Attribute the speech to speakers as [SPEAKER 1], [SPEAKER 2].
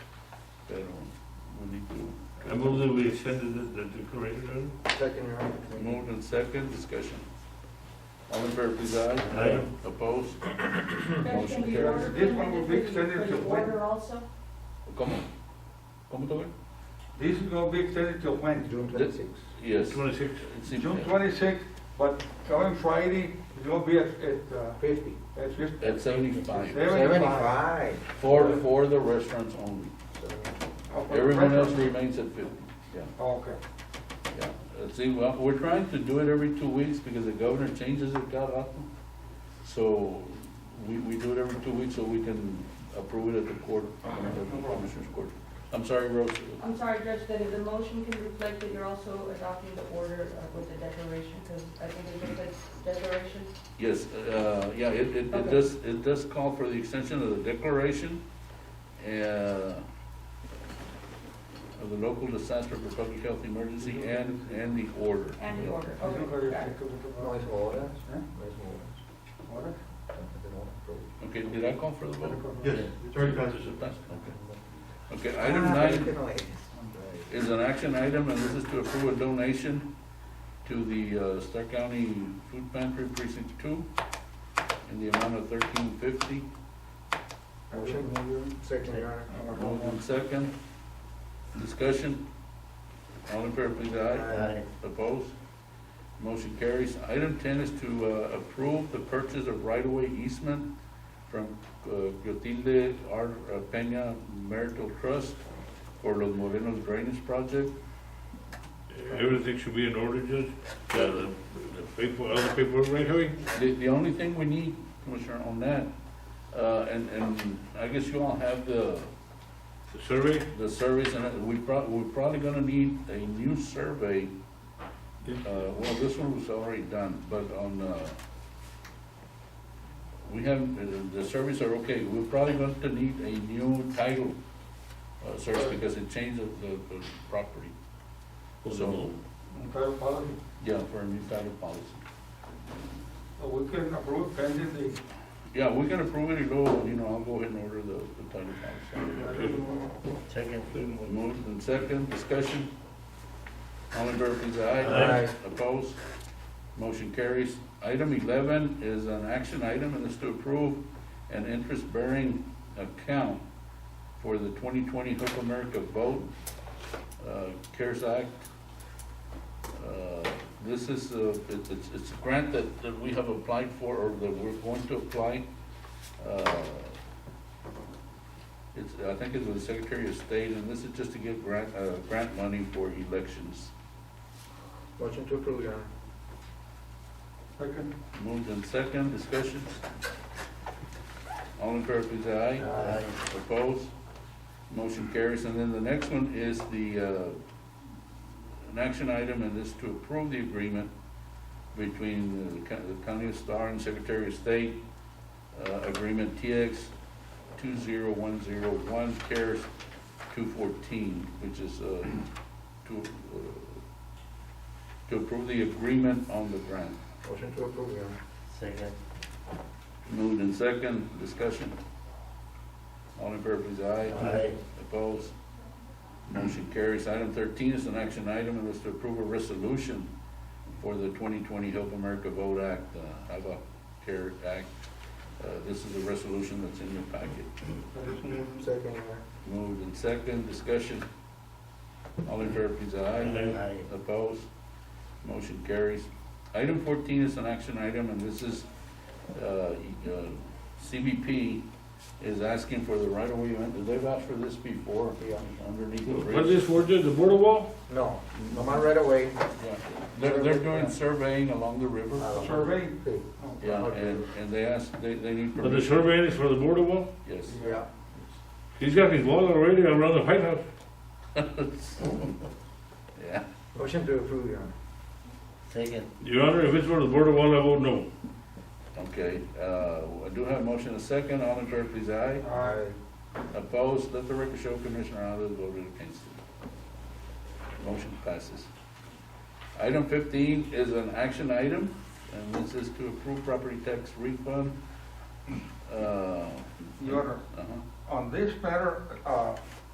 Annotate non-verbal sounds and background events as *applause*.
[SPEAKER 1] I don't, we need to.
[SPEAKER 2] I move that we extended the, the decoration.
[SPEAKER 3] Second, Your Honor.
[SPEAKER 1] Moved and second, discussion. All in favor, please, aye.
[SPEAKER 2] Aye.
[SPEAKER 1] Opposed? Motion
[SPEAKER 4] Question, Your
[SPEAKER 1] carries.
[SPEAKER 4] Honor,
[SPEAKER 3] This
[SPEAKER 4] can I
[SPEAKER 3] one will
[SPEAKER 4] just read
[SPEAKER 3] be
[SPEAKER 4] it
[SPEAKER 3] extended
[SPEAKER 4] for
[SPEAKER 3] to
[SPEAKER 4] the
[SPEAKER 3] when?
[SPEAKER 4] order also?
[SPEAKER 1] Come on. Come on,
[SPEAKER 3] This is gonna be extended till when? June
[SPEAKER 1] twenty-sixth. Yes.
[SPEAKER 2] Twenty-six.
[SPEAKER 1] It's in-
[SPEAKER 3] June twenty-sixth, but coming Friday, it's gonna be at, at, uh,
[SPEAKER 5] Fifty.
[SPEAKER 3] at fifty.
[SPEAKER 1] At seventy-five,
[SPEAKER 3] Seventy-five.
[SPEAKER 5] Seventy-five.
[SPEAKER 1] for, for the restaurants only. Everyone else remains at fifty. Yeah,
[SPEAKER 3] Oh, Okay.
[SPEAKER 1] yeah. Uh, See, well, we're trying to do it every two weeks because the governor changes it, cada rato. So we, we do it every two weeks so we can approve it at the court, at the commissioner's court. I'm sorry, Rose.
[SPEAKER 4] I'm sorry, Judge, that if the motion can reflect that you're also adopting the order uh, with the declaration, because I think it looks like declaration.
[SPEAKER 1] Yes, uh, yeah, it, it, it
[SPEAKER 4] Okay.
[SPEAKER 1] does, it does call for the extension of the declaration, uh, of the local disaster for public health emergency and, and the order.
[SPEAKER 4] And the order, okay. got it.
[SPEAKER 5] No es horas,
[SPEAKER 3] ¿Eh?
[SPEAKER 5] no es horas.
[SPEAKER 3] Ahora,
[SPEAKER 5] Antes de no aprobar.
[SPEAKER 1] Okay, did I call for the
[SPEAKER 3] Uh,
[SPEAKER 1] vote?
[SPEAKER 2] Yes, it's already passed.
[SPEAKER 1] Passed, Okay, Okay, item nine
[SPEAKER 5] No Ah, es.
[SPEAKER 1] is an action item, and this is to approve a donation to the, uh, Stark County Food Pantry Precinct Two in the amount of thirteen fifty.
[SPEAKER 3] Motion.
[SPEAKER 5] Second, Your Honor.
[SPEAKER 1] Moved and second. Discussion. All in favor, please, aye.
[SPEAKER 5] Aye.
[SPEAKER 1] Opposed? Motion carries. Item ten is to uh, approve the purchase of right-of-way easement from uh, Clotilde R. Peña Marital Trust for Los Morenos Drainage Project.
[SPEAKER 2] Everything should be in order, Judge? The, the the paper, all the paperwork right away?
[SPEAKER 1] The, the only thing we need, Commissioner, on that, uh, and, and I guess you all have the,
[SPEAKER 2] The survey?
[SPEAKER 1] the surveys, and we prob, we're probably gonna need a new survey Uh, well, this one was already done, but on, uh, we have, uh, the surveys are okay, we're probably going to need a new title, uh, search because it changed the, the the property. So,
[SPEAKER 3] Federal policy.
[SPEAKER 1] yeah, for a new title policy.
[SPEAKER 3] Uh, We can approve pending the,
[SPEAKER 1] Yeah, we can approve it, it'll, you know, I'll go ahead and order the, the title policy.
[SPEAKER 3] uh,
[SPEAKER 2] Second.
[SPEAKER 1] Moved and second, discussion. All in favor, please, aye.
[SPEAKER 2] Aye.
[SPEAKER 1] Opposed? Motion carries. Item eleven is an action item and is to approve an interest-bearing account for the twenty twenty Hope America Vote, uh, CARES Act. Uh, This is, uh, it- it's, it's a grant that, that we have applied for or that we're going to apply. Uh, it's, I think it's with the Secretary of State, and this is just to get grant, uh, grant money for elections.
[SPEAKER 5] Motion to approve, Your Honor.
[SPEAKER 3] second,
[SPEAKER 1] Moved in second, discussions? All in favor, please, aye.
[SPEAKER 5] Aye.
[SPEAKER 1] Opposed? Motion carries, and then the next one is the, uh, an action item, and this to approve the agreement between the co- the County of Star and Secretary of State, uh, agreement TX two zero one zero one CARES two fourteen, which is, uh, to, uh, to approve the agreement on the grant.
[SPEAKER 5] Motion to approve, Your Honor.
[SPEAKER 6] Second.
[SPEAKER 1] Moved in second, discussion. All in favor, please, aye.
[SPEAKER 6] Aye.
[SPEAKER 1] Opposed? Motion carries. Item thirteen is an action item, and is to approve a resolution for the twenty twenty Help America Vote Act, uh, HAVA Care Act. Uh, this is a resolution that's in your packet.
[SPEAKER 5] Second, Your Honor.
[SPEAKER 1] Moved in second, discussion. All in favor, please, aye.
[SPEAKER 6] Aye.
[SPEAKER 1] Opposed? Motion carries. Item fourteen is an action item, and this is, uh, uh, CBP is asking for the right-of-way, easement. they've asked for this before,
[SPEAKER 5] Yeah.
[SPEAKER 1] underneath the
[SPEAKER 2] What's
[SPEAKER 1] bridge.
[SPEAKER 2] this for, Judge? The border wall?
[SPEAKER 5] No, nomás right away.
[SPEAKER 1] Yeah. They're, they're doing surveying along the river,
[SPEAKER 3] survey.
[SPEAKER 5] Sí.
[SPEAKER 1] yeah, and, and they ask, they, they need
[SPEAKER 2] But the
[SPEAKER 1] permission,
[SPEAKER 2] survey is for the border wall?
[SPEAKER 1] yes. *laughs*
[SPEAKER 5] Yeah.
[SPEAKER 2] He's got his wall already around the White House.
[SPEAKER 1] Yeah,
[SPEAKER 5] Motion to approve, Your Honor.
[SPEAKER 6] Second.
[SPEAKER 2] Your Honor, if it's for the border wall, I vote no.
[SPEAKER 1] okay, uh, I do have a motion, a second, all in favor, please, aye.
[SPEAKER 5] Aye.
[SPEAKER 1] Opposed, let the record show Commissioner Alves voted against it. Motion passes. Item fifteen is an action item, and this is to approve property tax refund. Uh,
[SPEAKER 3] Your Honor,
[SPEAKER 1] uh-huh.
[SPEAKER 3] on this matter, uh,